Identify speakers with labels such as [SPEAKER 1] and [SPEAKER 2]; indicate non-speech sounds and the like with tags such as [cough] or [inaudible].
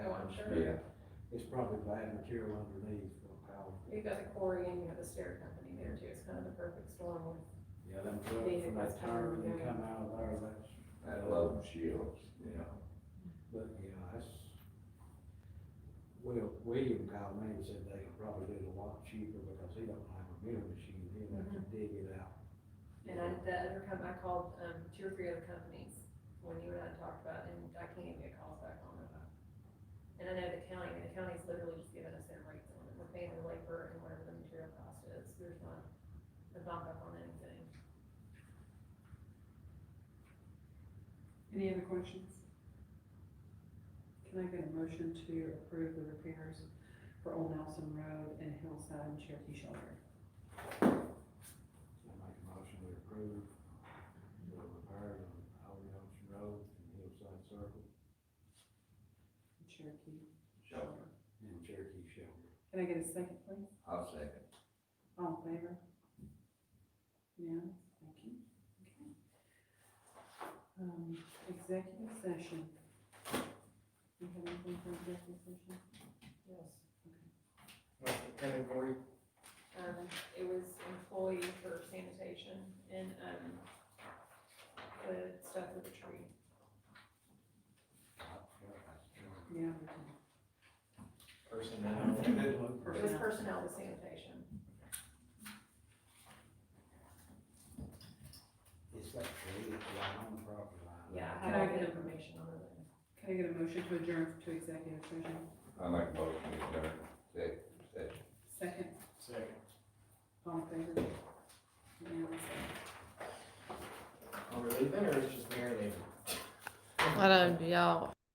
[SPEAKER 1] Oh,
[SPEAKER 2] Yeah.
[SPEAKER 3] It's probably bad material underneath, but how,
[SPEAKER 1] You've got the quarry and you have the stair company there too, it's kind of the perfect storm with
[SPEAKER 3] yeah, them trucks from that tire, when they come out of there, that's.
[SPEAKER 2] I love shields, you know.
[SPEAKER 3] But, yeah, that's, well, William called me and said they could probably do it a lot cheaper because he don't have a mill machine, he'll have to dig it out.
[SPEAKER 1] And I, the other company, I called, um, two or three other companies when you and I talked about, it, and I can't even get calls back on them. And I know the county, the county's literally just giving us their rates on it, we're paying the labor and whatever the material cost is, there's not a bump up on anything.
[SPEAKER 4] Any other questions? Can I get a motion to approve the repairs for Old Nelson Road and Hillside and Cherokee Shoulder?
[SPEAKER 3] I make a motion to approve the repair on Old Nelson Road and Hillside Circle
[SPEAKER 4] Cherokee
[SPEAKER 2] So
[SPEAKER 4] Shoulder.
[SPEAKER 3] and Cherokee
[SPEAKER 4] [laughs]
[SPEAKER 3] Shelter.
[SPEAKER 4] Can I get a second, please?
[SPEAKER 2] I'll second.
[SPEAKER 4] All in favor? Yes, thank you. Okay. Um, executive session. You have anything for executive session?
[SPEAKER 1] Yes.
[SPEAKER 5] What's the county board,
[SPEAKER 1] Um, it was employee for sanitation and, um, the stuff with the tree.
[SPEAKER 4] Yeah. we can.
[SPEAKER 5] personnel,
[SPEAKER 1] It was personnel with sanitation.
[SPEAKER 3] It's like three, it's right on the property line.
[SPEAKER 1] Yeah, I
[SPEAKER 4] Can
[SPEAKER 1] have
[SPEAKER 4] I
[SPEAKER 1] all the
[SPEAKER 4] get a-
[SPEAKER 1] information on it.
[SPEAKER 4] Can I get a motion to adjourn to executive session?
[SPEAKER 2] I make a motion to adjourn, second, second.
[SPEAKER 4] Second,
[SPEAKER 5] second.
[SPEAKER 4] all in favor? Yes.
[SPEAKER 5] Are we leaving or is it just Mary leaving?
[SPEAKER 6] I don't, y'all,